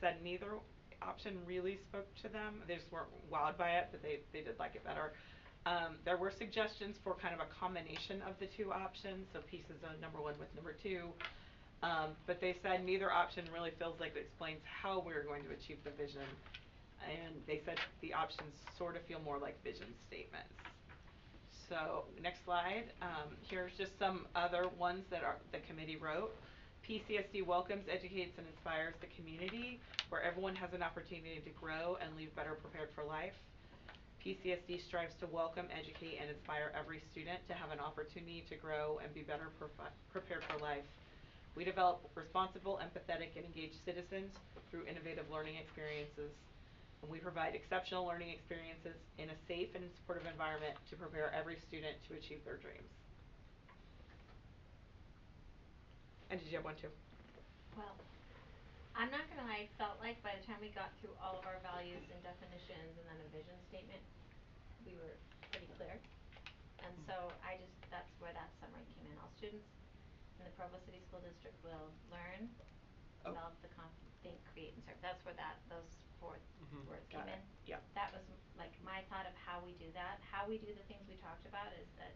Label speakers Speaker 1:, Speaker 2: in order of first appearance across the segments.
Speaker 1: said neither option really spoke to them. They just weren't wowed by it, but they, they did like it better. Um, there were suggestions for kind of a combination of the two options, so pieces of number one with number two. Um, but they said neither option really feels like it explains how we're going to achieve the vision. And they said the options sort of feel more like vision statements. So, next slide, um, here's just some other ones that are, the committee wrote. PCSD welcomes, educates, and inspires the community where everyone has an opportunity to grow and leave better prepared for life. PCSD strives to welcome, educate, and inspire every student to have an opportunity to grow and be better profi- prepared for life. We develop responsible, empathetic, and engaged citizens through innovative learning experiences. And we provide exceptional learning experiences in a safe and supportive environment to prepare every student to achieve their dreams. And did you have one too?
Speaker 2: Well, I'm not gonna lie, I felt like by the time we got through all of our values and definitions and then a vision statement, we were pretty clear. And so I just, that's where that summary came in. All students in the Provo City School District will learn,
Speaker 1: Oh.
Speaker 2: develop the conf- think, create and serve. That's where that, those four
Speaker 3: Mhm.
Speaker 2: words came
Speaker 1: Mm-hmm. Got
Speaker 2: in.
Speaker 1: it. Yep.
Speaker 2: That was m- like my thought of how we do that, how we do the things we talked about is that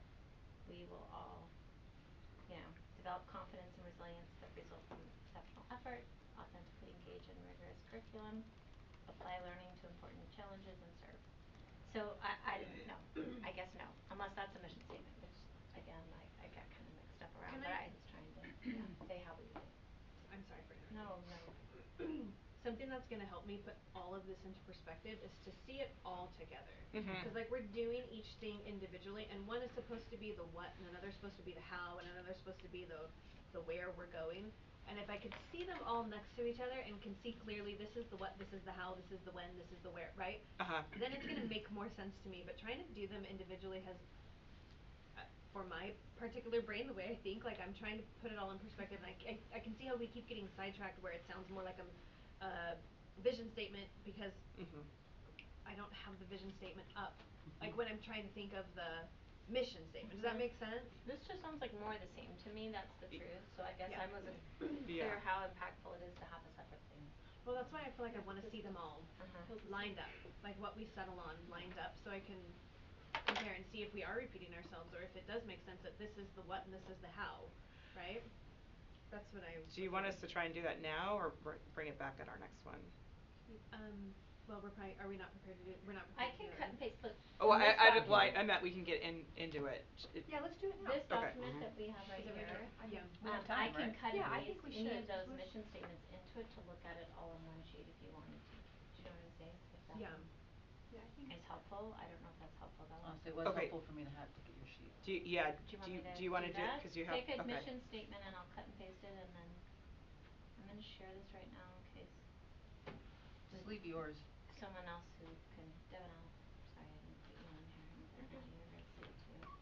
Speaker 2: we will all, you know, develop confidence and resilience that result from exceptional effort, authentically engage in rigorous curriculum, apply learning to important challenges and serve. So I I didn't know, I guess no, unless that's a mission statement, which again, I I got kinda mixed up around,
Speaker 4: Can
Speaker 2: but I
Speaker 4: I-
Speaker 2: was trying to, you know, say how we do it.
Speaker 4: I'm sorry for interrupting.
Speaker 2: No, no.
Speaker 4: Something that's gonna help me put all of this into perspective is to see it all together.
Speaker 1: Mhm.
Speaker 4: Cause like we're doing each thing individually and one is supposed to be the what and another's supposed to be the how and another's supposed to be the the where we're going. And if I could see them all next to each other and can see clearly this is the what, this is the how, this is the when, this is the where, right?
Speaker 1: Uh-huh.
Speaker 4: Then it's gonna make more sense to me, but trying to do them individually has uh, for my particular brain, the way I think, like I'm trying to put it all in perspective, and I, c- I- I can see how we keep getting sidetracked where it sounds more like a, a vision statement because
Speaker 1: Mhm.
Speaker 4: I don't have the vision statement up. Like when I'm trying to think of the mission statement, does that make sense?
Speaker 2: This just sounds like more of the same. To me, that's the
Speaker 1: Y-
Speaker 2: truth, so I guess
Speaker 4: yeah.
Speaker 2: I wasn't
Speaker 1: Yeah.
Speaker 2: clear how impactful it is to have a separate thing.
Speaker 4: Well, that's why I feel like I wanna see them all
Speaker 2: Uh-huh.
Speaker 4: lined up, like what we settle on lined up, so I can compare and see if we are repeating ourselves or if it does make sense that this is the what and this is the how, right? That's what I.
Speaker 1: Do you want us to try and do that now or br- bring it back at our next one?
Speaker 4: Um, well, we're probably, are we not prepared to do, we're not
Speaker 2: I
Speaker 4: prepared
Speaker 2: can
Speaker 4: to do it
Speaker 2: cut and
Speaker 4: right?
Speaker 2: paste, look.
Speaker 1: Oh,
Speaker 2: in
Speaker 1: I I
Speaker 2: this
Speaker 1: d- well, I I
Speaker 2: document-
Speaker 1: meant we can get in into it. J- it-
Speaker 4: Yeah, let's do it now.
Speaker 2: This
Speaker 1: Okay.
Speaker 2: document
Speaker 1: Mhm.
Speaker 2: that we have right
Speaker 4: Is it right
Speaker 2: here,
Speaker 4: here? Yeah.
Speaker 5: We have
Speaker 2: um, I
Speaker 5: time,
Speaker 2: can
Speaker 5: right?
Speaker 2: cut and
Speaker 4: Yeah, I think we
Speaker 2: paste any of
Speaker 4: should.
Speaker 2: those
Speaker 4: Let's-
Speaker 2: mission statements into it to look at it all in one sheet if you wanted to. Do you know what I'm saying? If that
Speaker 4: Yeah.
Speaker 2: is helpful, I don't know if that's helpful though.
Speaker 5: Honestly, Oh, it was
Speaker 1: Okay.
Speaker 5: helpful for me to have to get your sheet.
Speaker 1: Do you, yeah, do you, do you wanna do
Speaker 2: that?
Speaker 1: it, cause you have, okay.
Speaker 2: Take a mission statement and I'll cut and paste it and then, I'm gonna share this right now in case
Speaker 5: Just leave yours.
Speaker 2: someone else who can, Devin, I'll, sorry, I didn't put you on here, I'm gonna you to see it too.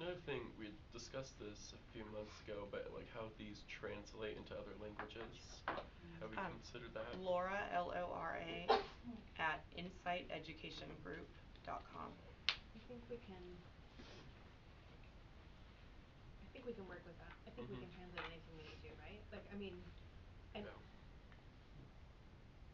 Speaker 3: Another thing, we discussed this a few months ago, but like how these translate into other languages. Have we
Speaker 1: Um,
Speaker 3: considered that?
Speaker 1: Laura, L O R A, at insighteducationgroup.com.
Speaker 4: I think we can. I think we can work with that. I think we
Speaker 3: Mhm.
Speaker 4: can translate anything we need to, right? Like, I mean, I,
Speaker 3: Yeah.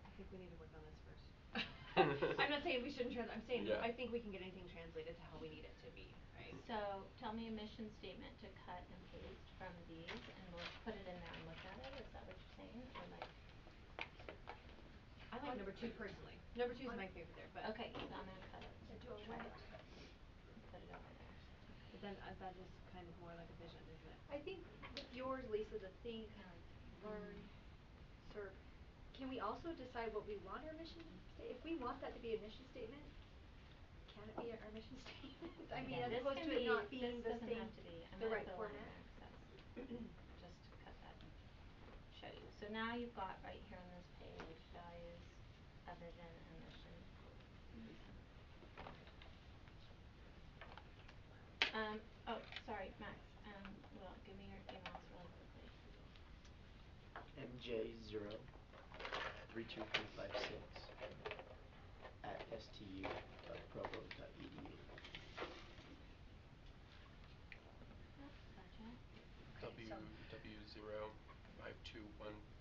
Speaker 4: I think we need to work on this first. I'm not saying we shouldn't translate, I'm saying
Speaker 3: Yeah.
Speaker 4: I think we can get anything translated to how we need it to be, right?
Speaker 2: So, tell me a mission statement to cut and paste from these, and we'll put it in there and look at it, is that what you're saying, or like,
Speaker 4: I like number two personally. Number two is my favorite there, but.
Speaker 2: okay, so I'm gonna cut it, try it, put it over there.
Speaker 4: But then uh, that is kind of more like a vision, isn't it?
Speaker 6: I think with yours, Lisa, the think, learn, serve, can we also decide what we want our mission, sta- if we want that to be a mission statement, can it be our mission statement? I mean,
Speaker 2: Yeah,
Speaker 6: as
Speaker 2: this
Speaker 6: opposed
Speaker 2: can
Speaker 6: to it
Speaker 2: be-
Speaker 6: not being the
Speaker 2: This doesn't
Speaker 6: same,
Speaker 2: have to be, I'm
Speaker 6: the
Speaker 2: gonna
Speaker 6: right
Speaker 2: put a line
Speaker 6: format.
Speaker 2: there, 'cause that's, just to cut that and show you. So now you've got right here on this page, values, a vision, and mission. Um, oh, sorry, Max, um, well, give me your emails really quickly.
Speaker 7: MJ zero three two three five six at stu dot provo dot E edu.
Speaker 2: Gotcha.
Speaker 3: W W zero five two one